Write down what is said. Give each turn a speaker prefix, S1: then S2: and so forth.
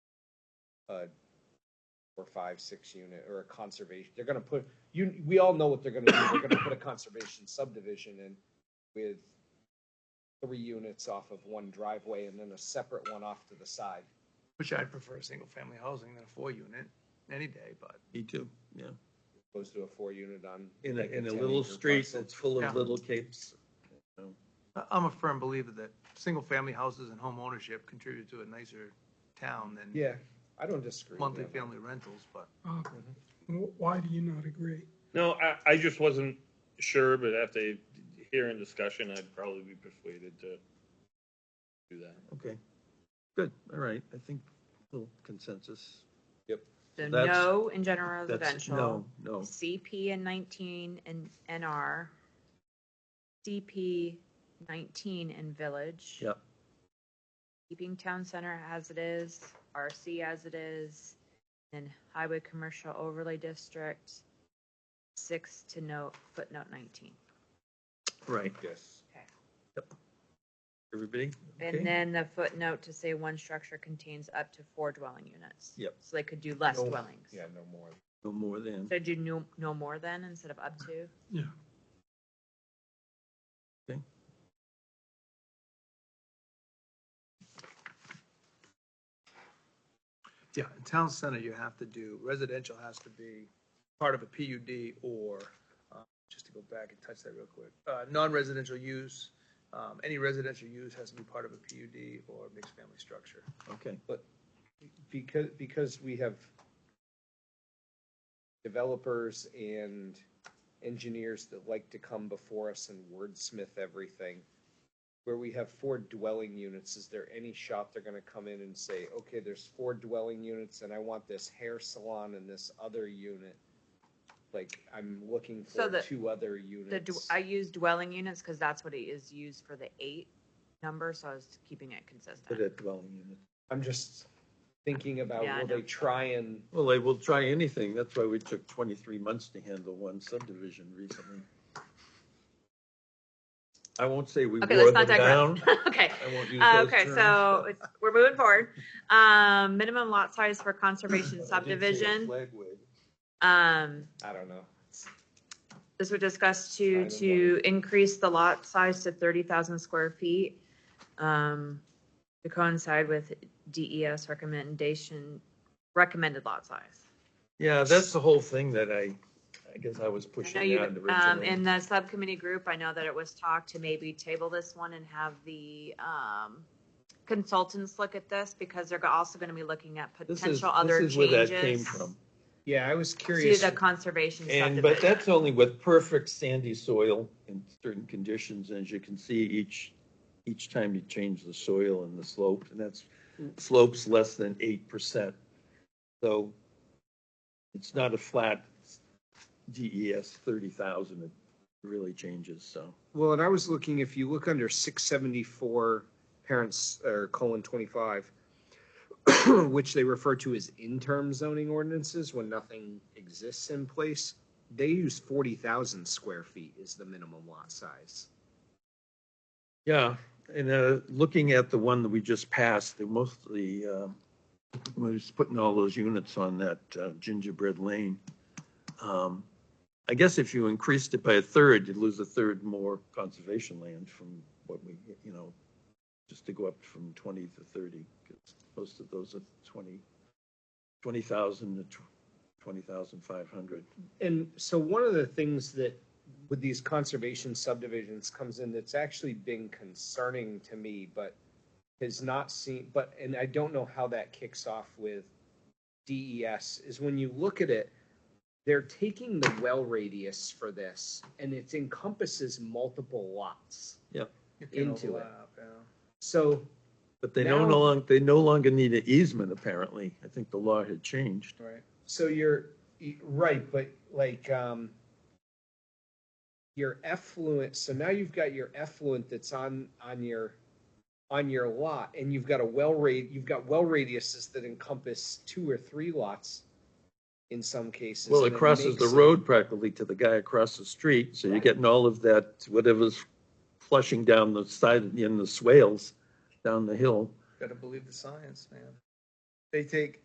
S1: a or five, six unit or a conservation, they're gonna put, you, we all know what they're gonna do, they're gonna put a conservation subdivision in with three units off of one driveway and then a separate one off to the side.
S2: Which I'd prefer a single-family housing than a four-unit any day, but
S3: Me too, yeah.
S1: Opposed to a four unit on.
S3: In a,
S1: like
S3: in a
S1: 10
S3: little
S1: acre
S3: street
S1: parcel.
S3: that's full
S2: Yeah.
S3: of little capes.
S2: I- I'm a firm believer that single-family houses and home ownership contribute to a nicer town than
S1: Yeah, I don't disagree. with
S2: monthly
S1: that.
S2: family rentals, but
S4: Uh, wh- Why do you not agree?
S5: No, I, I just wasn't sure, but after hearing discussion, I'd probably be persuaded to do that.
S3: Okay, good, all right, I think little consensus.
S6: So
S3: That's-
S6: no in general
S3: That's,
S6: residential,
S3: no, no,
S6: CP in nineteen and NR, CP nineteen in village.
S3: Yep.
S6: Keeping town center as it is, RC as it is, and highway commercial overlay district, six to note, footnote nineteen.
S3: right,
S1: Yes.
S3: everybody? Okay.
S6: And then the footnote to say one structure contains up to four dwelling units.
S3: Yep.
S6: So they could do less
S1: No-
S6: dwellings.
S1: Yeah, no more.
S3: No more than,
S6: So do no, no more than instead of up to?
S4: Yeah.
S2: yeah, in town center, you have to do, residential has to be part of a PUD or, uh, just to go back and touch that real quick, uh, non-residential use, um, any residential use has to be part of a PUD or mixed-family structure.
S3: okay,
S1: because because we have developers and engineers that like to come before us and wordsmith everything where we have four dwelling units is there any shot they're going to come in and say okay there's four dwelling units and i want this hair salon and this other unit like i'm looking for
S6: So the-
S1: two other
S6: The, d-
S1: units
S6: I use dwelling units because that's what it is used for the eight number, so I was keeping it
S3: put
S6: consistent.
S3: a dwelling unit.
S1: i'm just thinking about
S6: Yeah, I
S1: will
S6: know.
S1: they try and
S3: Well, they will try anything, that's why we took twenty-three months to handle one subdivision recently. I won't say we
S6: Okay,
S3: wore them
S6: let's not digress.
S3: down.
S6: Okay,
S3: I won't use
S6: Uh,
S3: those
S6: okay,
S3: terms,
S6: so
S3: but-
S6: it's, we're moving forward. Um, minimum lot size for conservation subdivision. Um,
S1: i don't know
S6: this was discussed to,
S1: Item
S6: to increase the lot size to thirty thousand square feet. Um, to coincide with DES recommendation, recommended lot size.
S3: Yeah, that's the whole thing that I, I guess I was
S6: I know
S3: pushing
S6: you,
S3: around
S6: um,
S3: originally.
S6: in the subcommittee group, I know that it was talked to maybe table this one and have the, um, consultants look at this because they're also gonna be looking at
S3: This is-
S6: potential other
S3: This
S6: changes.
S3: is where that came from.
S1: yeah i was
S6: To
S1: curious
S6: the conservation
S3: And, but
S6: subdivision.
S3: that's only with perfect sandy soil in certain conditions, as you can see, each, each time you change the soil and the slope, and that's slopes less than eight percent. So it's not a flat DES thirty thousand, it really changes, so.
S1: Well, and I was looking, if you look under six seventy-four parents, or colon twenty-five, which they refer to as interim zoning ordinances when nothing exists in place, they use forty thousand square feet is the minimum lot size.
S3: Yeah, and uh, looking at the one that we just passed, the mostly, uh, we was putting all those units on that uh, gingerbread lane. Um, I guess if you increased it by a third, you'd lose a third more conservation land from what we, you know, just to go up from twenty to thirty, 'cause most of those are twenty, twenty thousand to twenty thousand five hundred.
S1: And so one of the things that with these conservation subdivisions comes in that's actually been concerning to me, but has not seen, but, and I don't know how that kicks off with DES, is when you look at it, they're taking the well radius for this and it encompasses multiple lots.
S2: You can
S1: Into it.
S2: overlap, yeah.
S1: So,
S3: But they don't
S1: Now-
S3: no longer, they no longer need an easement, apparently. I think the law had changed.
S2: Right.
S1: so you're, y- right, but like, um, your effluent, so now you've got your effluent that's on, on your, on your lot, and you've got a well rate, you've got well radiuses that encompass two or three lots in some cases.
S3: Well,
S1: and
S3: it crosses the
S1: makes it-
S3: road practically to the guy across the street, so you're
S1: Right.
S3: getting all of that, whatever's flushing down the side, in the swales, down the hill.
S2: Gotta believe the science, man. They take